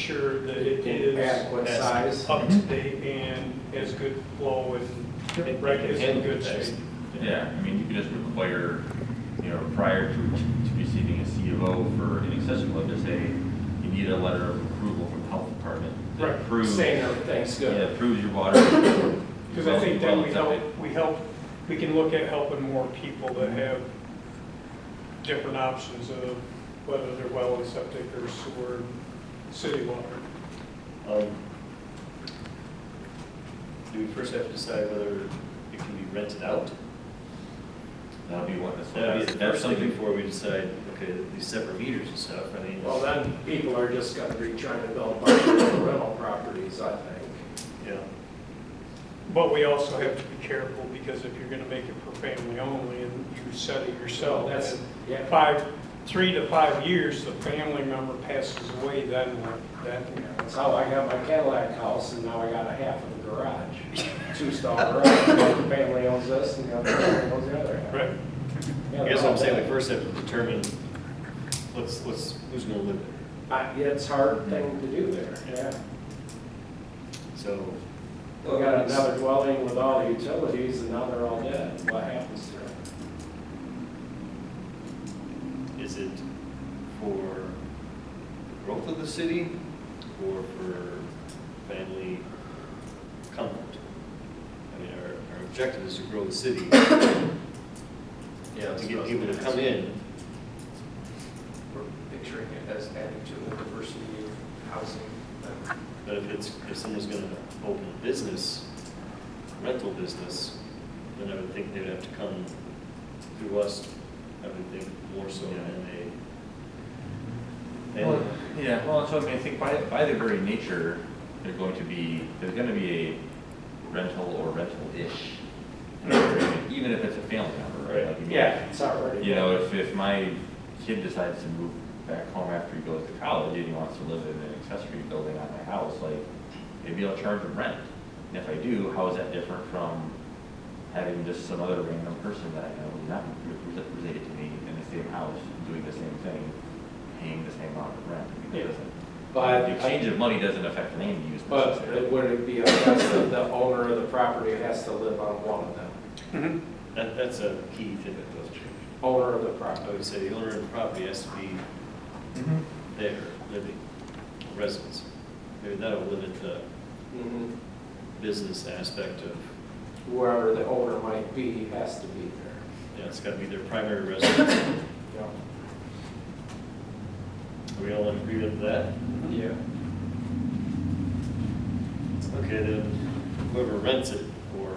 sure that it is In adequate as size. up to date and as good flow and rec is in And good fixed. shape. Yeah, I mean, you could just require, you know, prior to, to receiving a CFO for an accessory dwelling, just say, you need a letter of approval from the health department. that Right, approves- Saying everything's Yeah, good. approves your water. Because I think then we well, help, we help, we can look at helping more people that have different options of whether they're well and septic or sewer, city water. Um, Do we first have to decide whether it can be rented out? That'd be one, That'd be that's, the that's first thing something, before we decide, okay, these separate meters and stuff, I mean, Well, then people are just gonna be trying to build multiple rental properties, I think. yeah. But we also have to be careful because if you're gonna make it for family only and you set it yourself, That's, that's yeah, five, three to five years, the family member passes away, then what? Then, that's how I got my Cadillac house, and now I got a half of the garage, two-stall garage. One family owns this, and the other family owns the other half. right? Yeah, I guess what I'm saying, we that- first have to determine, let's, let's, who's gonna live there? I- yeah, It's a hard thing to do there, yeah. So, We got another dwelling with all the utilities, and now they're all dead, what happens to it? is it for growth of the city or for family comfort? I mean, our, our objective is to grow the city, Yeah, to get people to come in. Picturing it as adding to the diversity of housing. that- But if it's, if someone's gonna open a business, rental business, then I would think they'd have to come through us, I would think more so than they. Well, than- yeah, well, so I mean, I think by, by their very nature, they're going to be, there's gonna be a rental or rental-ish. Even if it's a family member, right? Like, you mean, Yeah, it's already. You know, if, if my kid decides to move back home after he goes to college and he wants to live in an accessory building on my house, like, maybe I'll charge him rent. And if I do, how is that different from having just some other random person that I know who's not re- related to me in the same house, doing the same thing, paying the same amount of rent? I mean, Yeah. it doesn't, But the exchange of money doesn't affect the land use But necessarily. it would it be, a guess that the owner of the property has to live on one of them, That, that's a key thing that does change. owner of the property. I would say the owner of the property has to be Mhm. there, living, residents. Maybe that'll limit the Mhm. business aspect of, Whoever the owner might be has to be there. yeah, it's gotta be their primary residence. Are we all in agreement with that? Yeah. Okay, then whoever rents it, or,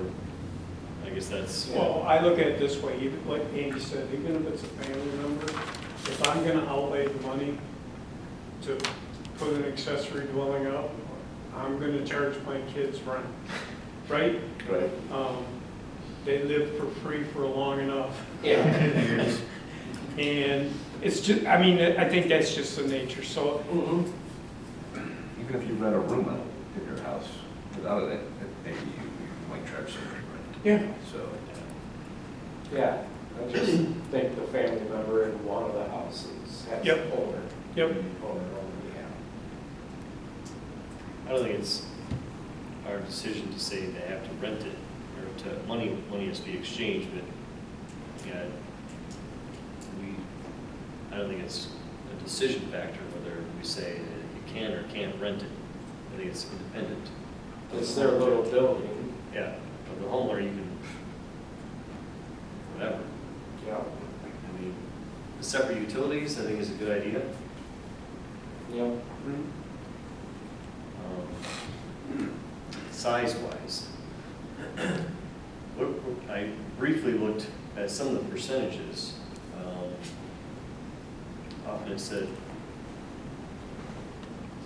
I guess that's, Well, I look at it this way, even like Andy said, even if it's a family member, if I'm gonna outlay the money to put an accessory dwelling up, I'm gonna charge my kids rent, right? Right. Um, They live for free for long enough. Yeah. And it's just, I mean, I think that's just the nature, so, Mhm. Even if you rent a room out in your house without it, maybe you you might charge some rent, yeah, so. Yeah, I just think the family member in one of the houses has Yep. the owner. yep. Owner, owner, yeah. I don't think it's our decision to say they have to rent it, or to, money, money has to be exchanged, but, yeah, we, I don't think it's a decision factor whether we say that you can or can't rent it. I think it's independent. It's their little building, Yeah, but the homeowner, you can, whatever. yeah. I mean, the separate utilities, I think is a good idea. Yeah. um, size-wise. What- what- I briefly looked at some of the percentages. Um, Often it said, is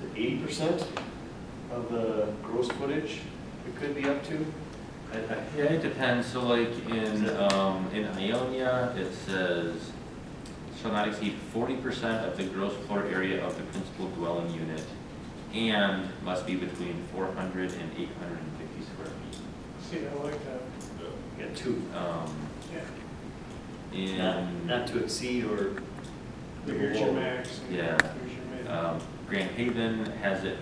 it eighty percent of the gross footage it could be up to? I- I- Yeah, it depends, so like in, um, in Ionia, it says, shall not exceed forty percent of the gross floor area of the principal dwelling unit, and must be between 400 and 850 square feet. See, I like that. You got two, Um, Yeah. not in, not to exceed or. Here's your max. and Yeah. Here's your min. um, Grand Haven has it